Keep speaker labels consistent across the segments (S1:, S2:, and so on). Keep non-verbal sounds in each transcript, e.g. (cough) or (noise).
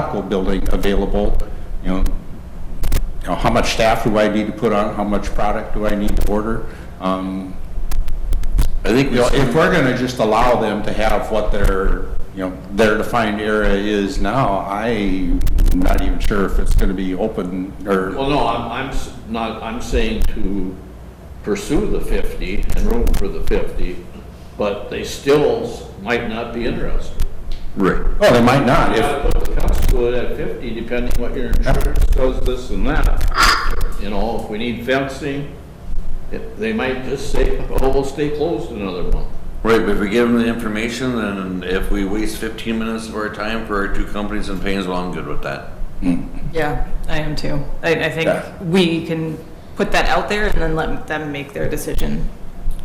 S1: Aqua building available, you know, you know, how much staff do I need to put on, how much product do I need to order? Um, I think, you know, if we're gonna just allow them to have what their, you know, their defined area is now, I'm not even sure if it's gonna be open, or,
S2: Well, no, I'm, I'm s- not, I'm saying to pursue the 50 and room for the 50, but they still s- might not be interested.
S1: well, they might not,
S2: You
S1: if,
S2: gotta put the cost to it at 50, depending what your insurance does, this and that. You know, if we need fencing, it- they might just say, oh, we'll stay closed another month.
S3: Right, but if we give them the information, and if we waste fifteen minutes of our time for our two companies in Painesville, I'm good with that.
S4: Yeah, I am too. I, I think
S1: Yeah.
S4: we can put that out there and then let them make their decision.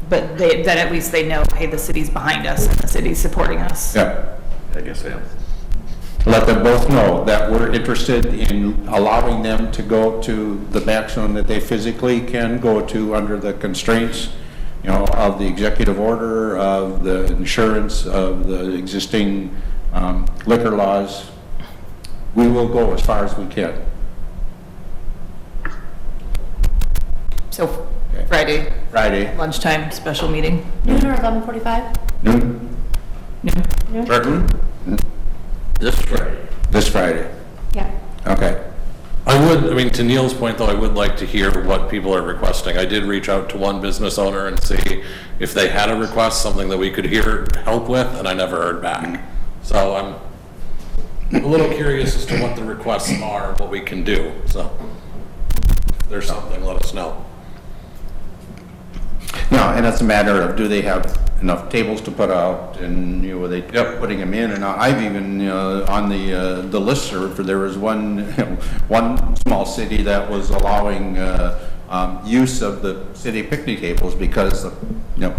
S4: But they, then at least they know, hey, the city's behind us and the city's supporting us.
S1: yeah.
S3: I guess I am.
S1: let them both know that we're interested in allowing them to go to the maximum that they physically can go to under the constraints, you know, of the executive order, of the insurance, of the existing um, liquor laws. We will go as far as we can.
S4: So Friday
S1: Friday,
S4: lunchtime, special meeting.
S5: Noon or eleven forty-five?
S1: noon,
S3: This Friday.
S1: this Friday.
S5: Yeah.
S1: Okay.
S6: I would, I mean, to Neil's point, though, I would like to hear what people are requesting. I did reach out to one business owner and see if they had a request, something that we could hear help with, and I never heard back. So I'm a little curious as to what the requests are, what we can do, so. If there's something, let us know.
S1: No, and it's a matter of, do they have enough tables to put out, and, you know, are they
S6: Yep.
S1: putting them in? And I've even, uh, on the, uh, the listserv, there was one, (laughs) one small city that was allowing uh, um, use of the city picnic tables because, you know,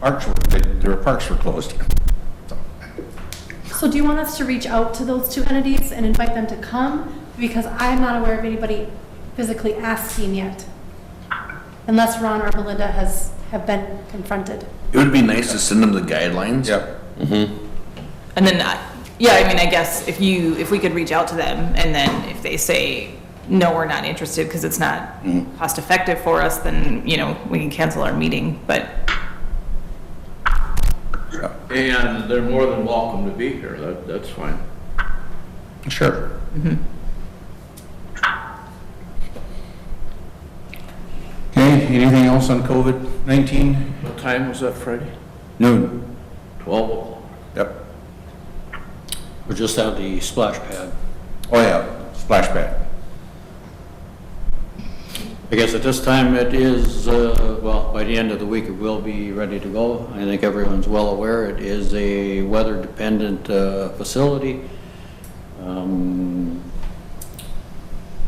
S1: parks were, their parks were closed.
S5: So do you want us to reach out to those two entities and invite them to come? Because I'm not aware of anybody physically asking yet. Unless Ron or Belinda has, have been confronted.
S3: It would be nice to send them the guidelines.
S1: Yep.
S4: And then, I- yeah, I mean, I guess if you, if we could reach out to them and then if they say, no, we're not interested because it's not
S1: Mm-hmm.
S4: cost effective for us, then, you know, we can cancel our meeting. But
S2: And they're more than welcome to be here, that, that's fine.
S1: Sure. Okay, anything else on COVID-19?
S2: What time was that, Friday?
S1: Noon.
S2: 12 o'clock.
S1: Yep.
S7: We're just at the splash pad.
S1: Oh, yeah, splash pad.
S7: I guess at this time it is, uh, well, by the end of the week, it will be ready to go. I think everyone's well aware, it is a weather-dependent uh, facility. Um,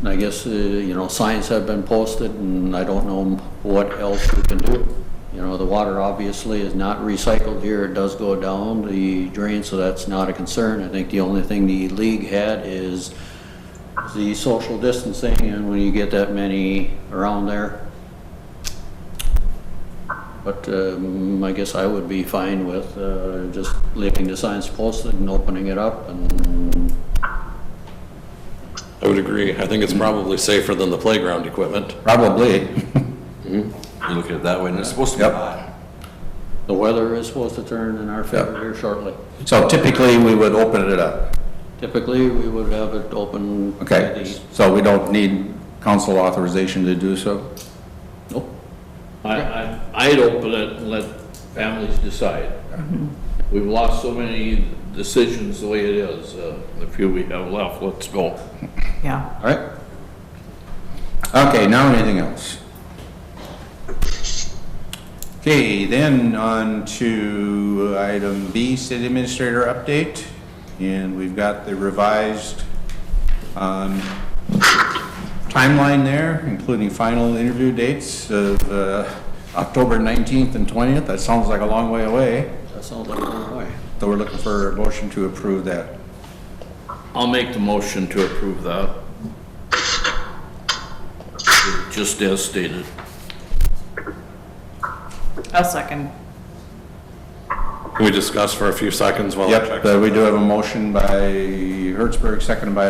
S7: And I guess, uh, you know, signs have been posted, and I don't know what else we can do. You know, the water obviously is not recycled here, it does go down the drain, so that's not a concern. I think the only thing the league had is the social distancing, and when you get that many around there. But um, I guess I would be fine with uh, just leaving the signs posted and opening it up and
S6: I would agree. I think it's probably safer than the playground equipment.
S1: Probably.
S3: You look at it that way, and it's supposed to be
S1: Yep.
S3: hot.
S7: the weather is supposed to turn in our favor here shortly.
S1: So typically, we would open it up,
S7: Typically, we would have it open. by
S1: okay?
S7: the-
S1: So we don't need council authorization to do so?
S7: Nope.
S2: I, I, I'd open it and let families decide. We've lost so many decisions the way it is, uh, the few we have left, let's go.
S4: yeah.
S7: All right.
S1: Okay, now anything else? Okay, then on to item B, city administrator update. And we've got the revised um, timeline there, including final interview dates of uh, October 19th and 20th. That sounds like a long way away,
S7: That sounds like a long way.
S1: so we're looking for a motion to approve that.
S2: I'll make the motion to approve that. Just as stated.
S4: I'll second.
S6: Can we discuss for a few seconds while I check?
S1: Yep, uh, we do have a motion by Hertzberg, seconded by